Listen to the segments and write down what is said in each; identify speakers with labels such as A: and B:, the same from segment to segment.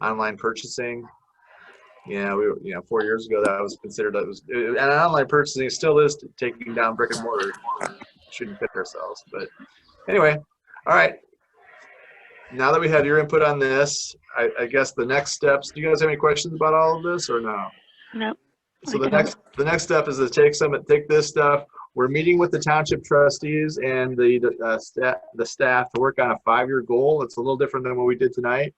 A: online purchasing. Yeah, we, were- you know, four years ago, that was considered, that was, and online purchasing still is taking down brick and mortar. Shouldn't pick ourselves, but anyway, all right. Now that we have your input on this, I, I guess the next steps, do you guys have any questions about all of this or no?
B: No.
A: So the
B: Okay.
A: next, the next step is to take some, take this stuff. We're meeting with the township trustees and the, uh, staff, the staff to work on a five-year goal. It's a little different than what we did tonight.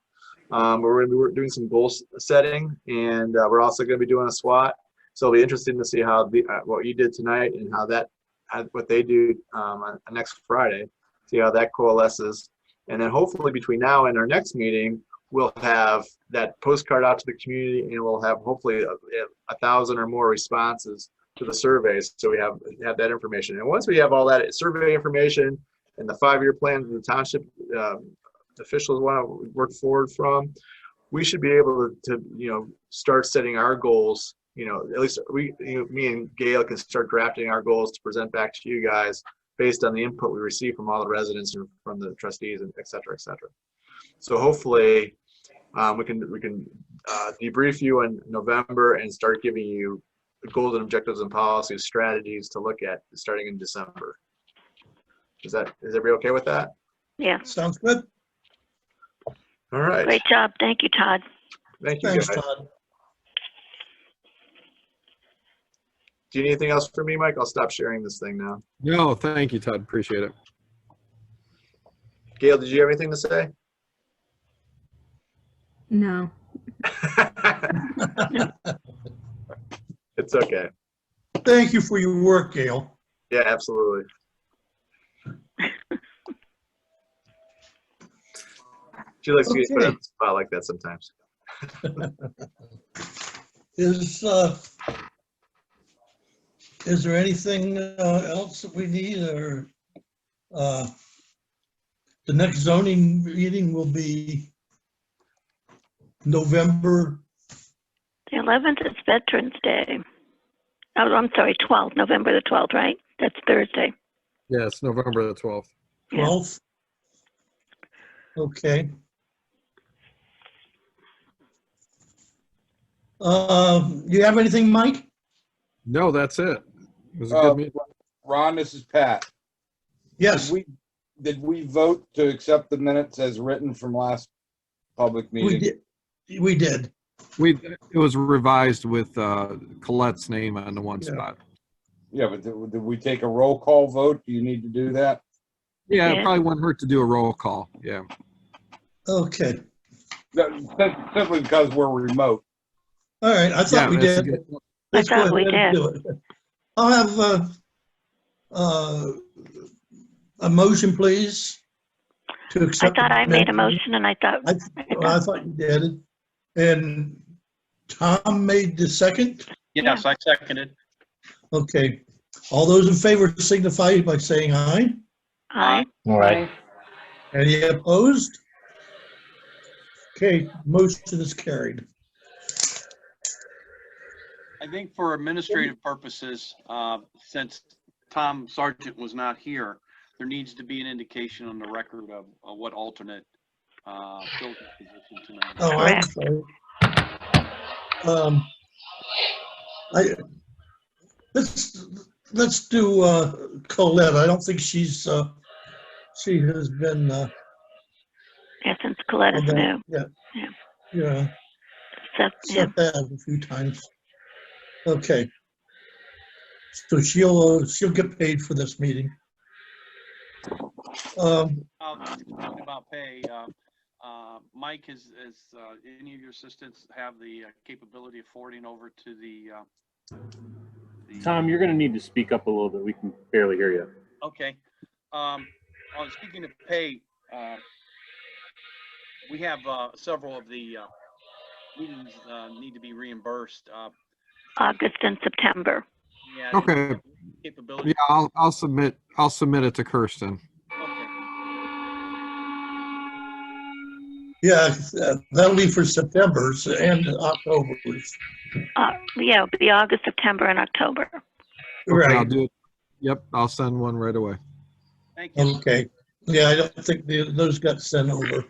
A: Um, we're gonna be we're doing some goal s- setting and, uh, we're also gonna be doing a SWAT. So it'll be interesting to see how the, uh, what you did tonight and how that, how- what they do, um, on on next Friday. See how that coalesces. And then hopefully between now and our next meeting, we'll have that postcard out to the community and we'll have hopefully uh, a, a thousand or more responses to the surveys. So we have, have that information. And once we have all that survey information and the five-year plan that the township um, officials want to work forward from, we should be able to, you know, start setting our goals, you know, at least we, you know, me and Gail can start drafting our goals to present back to you guys based on the input we receive from all the residents and from the trustees and et cetera, et cetera. So hopefully, um, we can, we can uh, debrief you in November and start giving you goals and objectives and policies, strategies to look at starting in December. Is that, is everybody okay with that?
B: Yeah,
C: Sounds good.
A: All right,
B: great job. Thank you, Todd.
A: thank you
C: Thanks,
A: guys.
C: Todd.
A: Do you need anything else from me, Mike? I'll stop sharing this thing now.
D: No, thank you, Todd. Appreciate it.
A: Gail, did you have anything to say?
E: No.
A: It's okay.
C: Thank you for your work, Gail.
A: Yeah, absolutely. She likes to get put on the spot like that sometimes.
C: Is, uh, is there anything uh, else that we need or, uh, the next zoning meeting will be November,
B: The 11th is Veterans Day. Oh, I'm sorry, 12th, November the 12th, right? That's Thursday.
D: Yeah, it's November the 12th.
B: Yeah.
C: 12th? Okay. Uh, you have anything, Mike?
D: No, that's it. It was a
F: Uh,
C: Oh.
D: good meeting.
F: Ron, this is Pat. Did
C: Yes,
F: we, did we vote to accept the minutes as written from last public
C: we
F: meeting?
C: did. We did.
D: We, it was revised with uh Colette's name on the one
C: Yeah.
D: spot.
F: Yeah, but did did we take a roll call vote? Do you need to do that?
D: Yeah,
B: Yeah.
D: it probably wouldn't hurt to do a roll call. Yeah.
C: Okay.
F: No, sim- Simply because we're remote.
C: All right. I
D: Yeah,
C: thought we
D: that's a
C: did.
D: good-
B: I
C: Let's go
B: thought we
C: ahead and do it. I'll have, uh, uh, a motion, please. to
B: I
C: accept
B: thought I made a
C: amendment.
B: motion and I thought,
C: I, I thought you did. And Tom made the second.
G: Yes, I seconded.
C: Okay. All those in favor signify by saying aye.
B: aye,
H: All right.
C: Any opposed? Okay, motion is carried.
G: I think for administrative purposes, uh, since Tom Sargent was not here, there needs to be an indication on the record of of what alternate uh, filled the position tonight.
C: Oh, I'm
B: Correct.
C: sorry. Um, I, let's, let's do uh, Colette. I don't think she's, uh, she has been, uh,
B: yeah, since Colette is
C: on that-
B: new.
C: yeah.
B: Yeah.
C: Yeah,
B: So, yeah,
C: set that a few times. Okay. So she'll, uh, she'll get paid for this meeting. Um,
G: Um, Talking about pay, uh, uh, Mike, is, is uh, any of your assistants have the uh, capability of forwarding over to the? uh, the-
H: Tom, you're going to need to speak up a little bit. We can barely hear you.
G: Okay. Um, on speaking of pay, uh, we have, uh, several of the, uh, meetings, uh, need to be reimbursed, uh.
B: August and September.
G: yeah,
D: Okay.
G: Capability.
D: Yeah, I'll, I'll submit, I'll submit it to Kirsten.
G: Okay.
C: yeah, uh, that'll be for September's and October's.
B: Uh, yeah, it'll be August, September and October.
D: And I'll
C: Right.
D: do it. Yep, I'll send one right away.
G: Thank you.
C: Okay, yeah, I don't think the- those got sent over.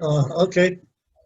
C: Uh, okay,